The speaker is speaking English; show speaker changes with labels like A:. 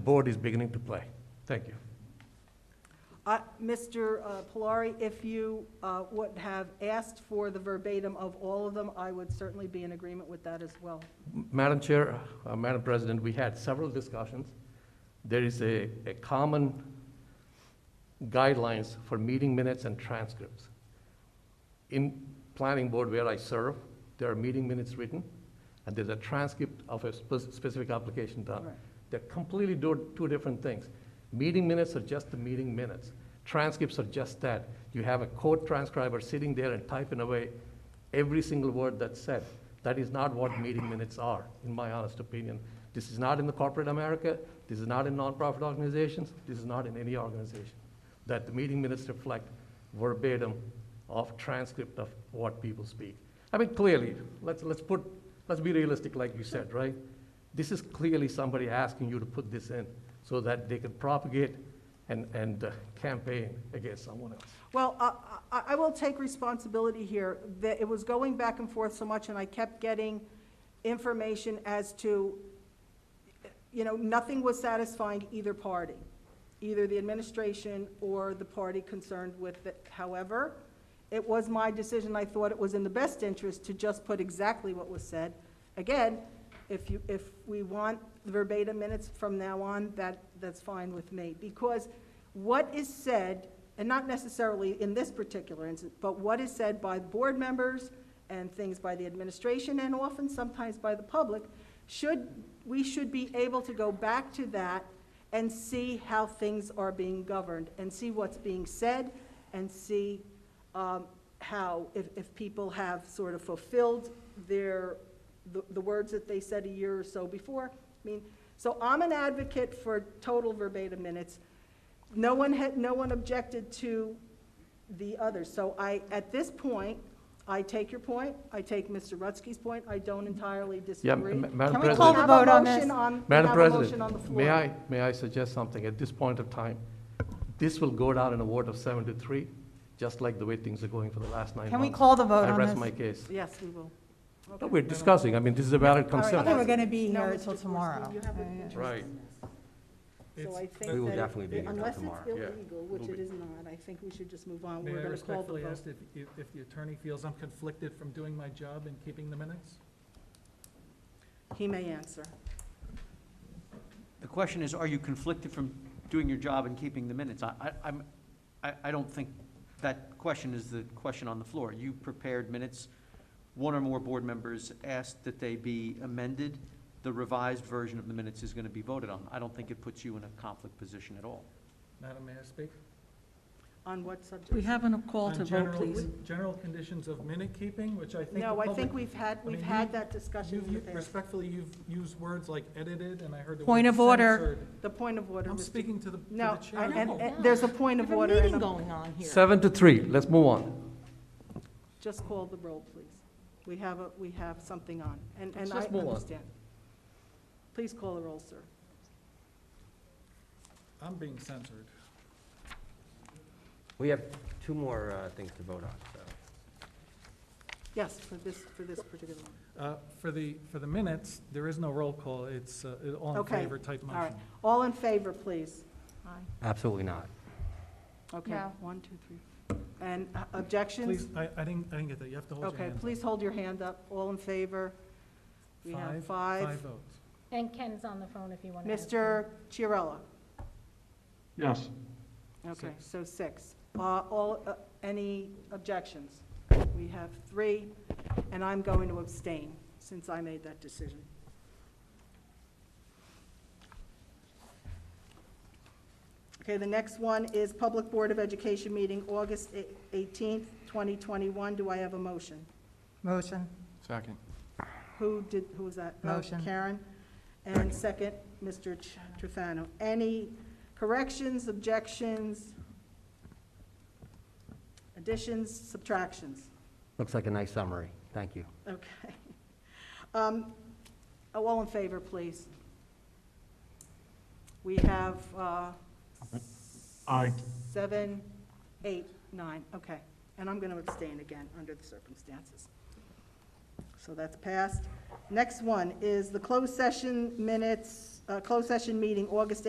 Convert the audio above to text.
A: The board is beginning to play. Thank you.
B: I- Mr. uh, Polari, if you uh, would have asked for the verbatim of all of them, I would certainly be in agreement with that as well.
A: M- Madam Chair, uh, Madam President, we had several discussions. There is a, a common guidelines for meeting minutes and transcripts. In planning board where I serve, there are meeting minutes written, and there's a transcript of a spec- specific application done.
B: Right.
A: They're completely do, two different things. Meeting minutes are just the meeting minutes. Transcripts are just that. You have a court transcriber sitting there and typing away every single word that's said. That is not what meeting minutes are, in my honest opinion. This is not in the corporate America, this is not in nonprofit organizations, this is not in any organization. That the meeting minutes reflect verbatim of transcript of what people speak. I mean, clearly, let's, let's put, let's be realistic like you said, right? This is clearly somebody asking you to put this in so that they can propagate and, and uh, campaign against someone else.
B: Well, I- I I will take responsibility here. that It was going back and forth so much, and I kept getting information as to, you know, nothing was satisfying either party, either the administration or the party concerned with it. However, it was my decision, I thought it was in the best interest to just put exactly what was said. Again, if you, if we want verbatim minutes from now on, that, that's fine with me. Because what is said, and not necessarily in this particular instance, but what is said by board members and things by the administration and often sometimes by the public, should, we should be able to go back to that and see how things are being governed and see what's being said and see um, how, if, if people have sort of fulfilled their, the, the words that they said a year or so before. I mean, so I'm an advocate for total verbatim minutes. No one had, no one objected to the others. So I, at this point, I take your point, I take Mr. Rutsky's point, I don't entirely disagree.
A: Ma- Madam
C: Can we call
A: President.
C: the vote on this?
B: We have a motion on, Um, we
A: Madam
B: have a motion on the
A: President,
B: floor.
A: may I, may I suggest something at this point of time? This will go down in a vote of seven to three, just like the way things are going for the last nine months.
C: Can we call the vote
A: I
C: on
A: rest
C: this?
A: my case.
B: Yes, we will.
A: No, we're discussing, I mean, this is a valid
B: right,
C: I
A: concern.
C: think we're gonna be
B: No,
C: here
B: Mr.
C: till
B: Gorski,
C: tomorrow.
B: you have an
C: I-
B: interest
A: Right.
B: in this. So
D: It's-
B: I think
E: We will
B: that
E: definitely be here till tomorrow,
B: Unless
E: yeah.
B: it's illegal, which it is not, I think we should just move on.
D: May
B: We're
D: I
B: going to call the
D: respectfully
B: vote.
D: ask if, if if the attorney feels I'm conflicted from doing my job and keeping the minutes?
B: He may answer.
F: The question is, are you conflicted from doing your job and keeping the minutes? I, I, I'm- I, I don't think that question is the question on the floor. You prepared minutes, one or more board members asked that they be amended. The revised version of the minutes is gonna be voted on. I don't think it puts you in a conflict position at all.
D: Madam, may I speak?
B: On what subject?
G: We have a call to
D: On
G: vote,
D: general-
G: please.
D: General conditions of minute keeping, which I think the
B: No, I
D: public-
B: think we've had, we've
D: mean,
B: had
D: you-
B: that discussion in
D: you've-
B: the
D: you-
B: past.
D: Respectfully, you've used words like edited, and I heard the word.
C: Point of order.
D: censored.
B: The point of order,
D: I'm
B: Mr.
D: speaking to the, to the
B: No, I-
D: chair.
B: and, and there's a point of order.
G: We have a
B: and
G: meeting
B: a-
G: going on here.
A: Seven to three, let's move on.
B: Just call the roll, please. We have, a we have something on, and, and I
A: Just move on.
B: understand. Please call the roll, sir.
D: I'm being censored.
E: We have two more uh, things to vote on, so.
B: Yes, for this, for this particular one.
D: Uh, For the, for the minutes, there is no roll call, it's uh, it- all in
B: Okay,
D: favor type
B: All right.
D: motion.
B: All in favor, please.
E: Absolutely not.
B: Okay,
C: No.
B: one, two, three. And uh, objections?
D: Please, I, I didn't, I didn't get that, you have to hold your
B: Okay,
D: hand.
B: please hold your hand up. All in favor? We have
D: Five oh.
B: five.
D: votes.
H: And Ken's on the phone if you want to.
B: Mr. Chiarella?
D: Yes.
B: Okay,
D: Six.
B: so six. Uh, All, uh, any objections? We have three, and I'm going to abstain since I made that decision. Okay, the next one is Public Board of Education meeting, August eight- 18th, 2021. Do I have a motion?
C: Motion.
E: Second.
B: Who did, who was that? Uh,
C: Motion.
B: Karen. And second, Mr. Ch- Trefano. Any corrections, objections, additions, subtractions?
E: Looks like a nice summary. Thank you.
B: Okay. Um, oh, All in favor, please. We have uh,
D: Aye.
B: seven, eight, nine, okay. And I'm going to abstain again under the circumstances. So that's passed. Next one is the closed session minutes, uh, closed session meeting, August